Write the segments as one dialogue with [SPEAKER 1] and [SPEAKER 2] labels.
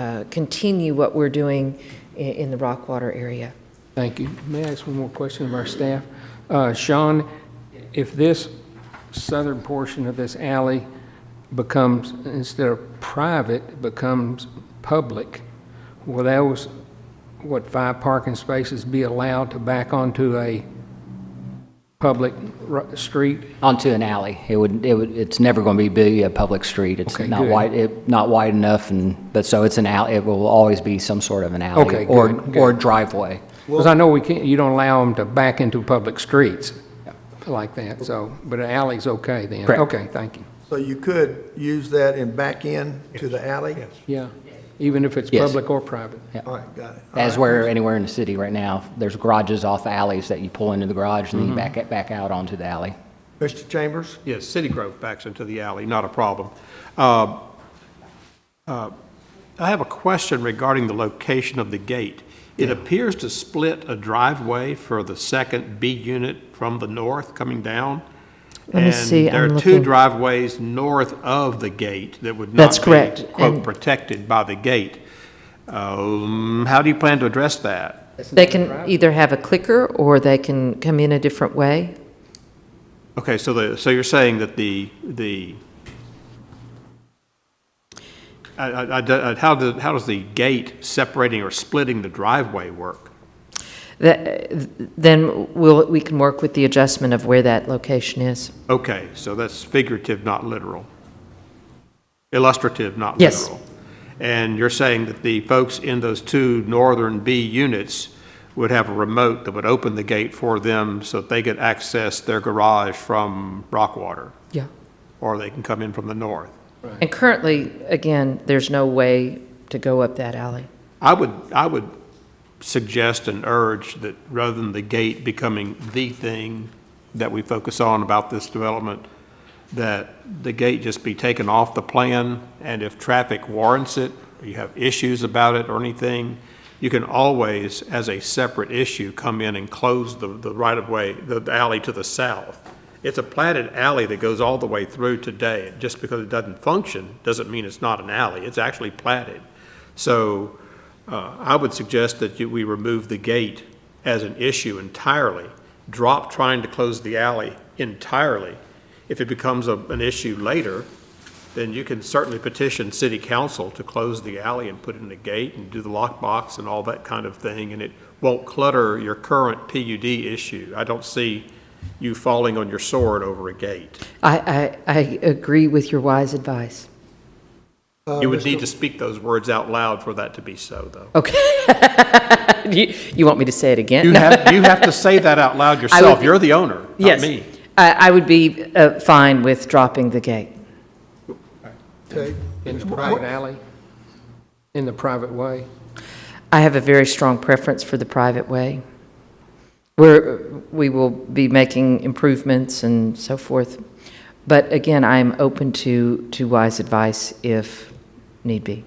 [SPEAKER 1] uh, continue what we're doing i- in the Rockwater area.
[SPEAKER 2] Thank you. May I ask one more question of our staff? Uh, Sean, if this southern portion of this alley becomes, instead of private, becomes public, will those, what, five parking spaces be allowed to back onto a public ru- street?
[SPEAKER 3] Onto an alley. It would, it would, it's never going to be be a public street. It's
[SPEAKER 2] Okay,
[SPEAKER 3] not
[SPEAKER 2] good.
[SPEAKER 3] wide, it, not wide enough and, but so it's an alley, it will always be some sort of an alley.
[SPEAKER 2] Okay,
[SPEAKER 3] Or,
[SPEAKER 2] good,
[SPEAKER 3] or
[SPEAKER 2] good.
[SPEAKER 3] driveway.
[SPEAKER 2] Because I know we can't, you don't allow them to back into public streets like that, so, but an alley's okay then?
[SPEAKER 3] Correct.
[SPEAKER 2] Okay, thank you.
[SPEAKER 4] So you could use that and back in to the alley? Yes.
[SPEAKER 2] Yeah, even if it's
[SPEAKER 3] Yes.
[SPEAKER 2] public or private?
[SPEAKER 4] All right, got it.
[SPEAKER 3] As where anywhere in the city right now, there's garages off alleys that you pull into the garage
[SPEAKER 2] Mm-hmm.
[SPEAKER 3] and then you back it, back out onto the alley.
[SPEAKER 4] Mr. Chambers?
[SPEAKER 5] Yes, City Grove backs into the alley, not a problem. Uh, uh, I have a question regarding the location of the gate. It appears to split a driveway for the second B unit from the north coming down.
[SPEAKER 1] Let me see, I'm
[SPEAKER 5] And there are two
[SPEAKER 1] looking.
[SPEAKER 5] driveways north of the gate that would not
[SPEAKER 1] That's
[SPEAKER 5] be,
[SPEAKER 1] correct,
[SPEAKER 5] quote,
[SPEAKER 1] and-
[SPEAKER 5] protected by the gate. Um, How do you plan to address that?
[SPEAKER 1] They can either have a clicker, or they can come in a different way.
[SPEAKER 5] Okay, so the, so you're saying that the, the, I, I, I don't- how does, how does the gate separating or splitting the driveway work?
[SPEAKER 1] That- Then we'll, we can work with the adjustment of where that location is.
[SPEAKER 5] Okay, so that's figurative, not literal. Illustrative, not
[SPEAKER 1] Yes.
[SPEAKER 5] literal. And you're saying that the folks in those two northern B units would have a remote that would open the gate for them so that they could access their garage from Rockwater,
[SPEAKER 1] Yeah.
[SPEAKER 5] or they can come in from the north?
[SPEAKER 1] And currently, again, there's no way to go up that alley.
[SPEAKER 5] I would, I would suggest and urge that rather than the gate becoming the thing that we focus on about this development, that the gate just be taken off the plan, and if traffic warrants it, or you have issues about it or anything, you can always, as a separate issue, come in and close the, the right-of-way, the the alley to the south. It's a platted alley that goes all the way through today. Just because it doesn't function, doesn't mean it's not an alley. It's actually platted. So uh, I would suggest that you- we remove the gate as an issue entirely, drop trying to close the alley entirely. If it becomes a- an issue later, then you can certainly petition city council to close the alley and put in a gate and do the lockbox and all that kind of thing, and it won't clutter your current PUD issue. I don't see you falling on your sword over a gate.
[SPEAKER 1] I, I, I agree with your wise advice.
[SPEAKER 5] You would need to speak those words out loud for that to be so, though.
[SPEAKER 1] Okay. You you want me to say it again?
[SPEAKER 5] You have, you have to say that out loud yourself. You're the owner, not
[SPEAKER 1] Yes.
[SPEAKER 5] me.
[SPEAKER 1] I, I would be uh, fine with dropping the gate.
[SPEAKER 4] Okay.
[SPEAKER 2] In the private alley? In the private way?
[SPEAKER 1] I have a very strong preference for the private way. We're, we will be making improvements and so forth. But again, I am open to, to wise advice if need be.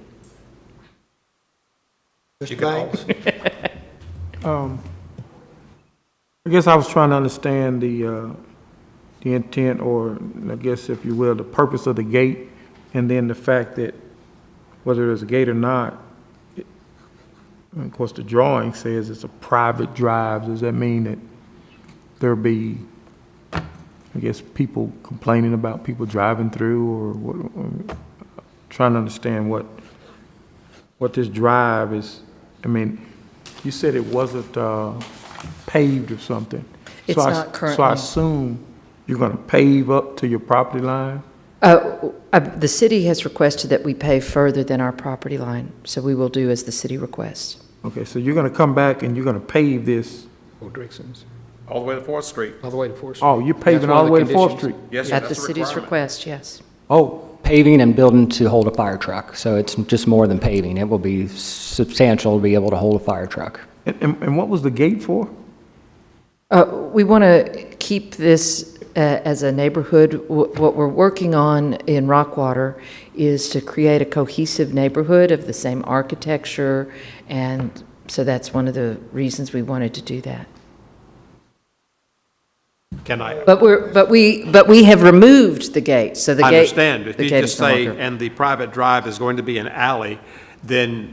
[SPEAKER 4] Mr. Banks?
[SPEAKER 6] I guess I was trying to understand the, uh, the intent, or I guess if you will, the purpose of the gate, and then the fact that whether there's a gate or not, it- and of course, the drawing says it's a private drive. Does that mean that there'll be, I guess, people complaining about people driving through, or what, or- trying to understand what, what this drive is, I mean, you said it wasn't uh, paved or something.
[SPEAKER 1] It's
[SPEAKER 6] So I-
[SPEAKER 1] not
[SPEAKER 6] So I
[SPEAKER 1] currently.
[SPEAKER 6] assume you're going to pave up to your property line?
[SPEAKER 1] Uh, uh, The city has requested that we pay further than our property line, so we will do as the city requests.
[SPEAKER 6] Okay, so you're going to come back and you're going to pave this,
[SPEAKER 2] Or Oh, Dixon's,
[SPEAKER 5] All the way to Fourth Street.
[SPEAKER 2] all the way to Fourth Street?
[SPEAKER 6] oh, you're
[SPEAKER 2] That's
[SPEAKER 6] paving
[SPEAKER 2] one
[SPEAKER 6] all
[SPEAKER 2] of
[SPEAKER 6] the way to Fourth
[SPEAKER 2] conditions.
[SPEAKER 6] Street?
[SPEAKER 5] Yes, sir,
[SPEAKER 1] At the
[SPEAKER 5] that's a
[SPEAKER 1] city's
[SPEAKER 5] requirement.
[SPEAKER 1] request, yes.
[SPEAKER 6] Oh,
[SPEAKER 3] Paving and building to hold a fire truck, so it's just more than paving. It will be substantial to be able to hold a fire truck.
[SPEAKER 6] and, and and what was the gate for?
[SPEAKER 1] Uh, We want to keep this uh, as a neighborhood. Wh- What we're working on in Rockwater is to create a cohesive neighborhood of the same architecture, and so that's one of the reasons we wanted to do that.
[SPEAKER 5] Can I,
[SPEAKER 1] But we're, but we, but we have removed the gate, so the
[SPEAKER 5] I
[SPEAKER 1] gate.
[SPEAKER 5] understand,
[SPEAKER 1] the
[SPEAKER 5] if you
[SPEAKER 1] gate
[SPEAKER 5] just
[SPEAKER 1] is no
[SPEAKER 5] say,
[SPEAKER 1] longer-
[SPEAKER 5] and the private drive is going to be an alley, then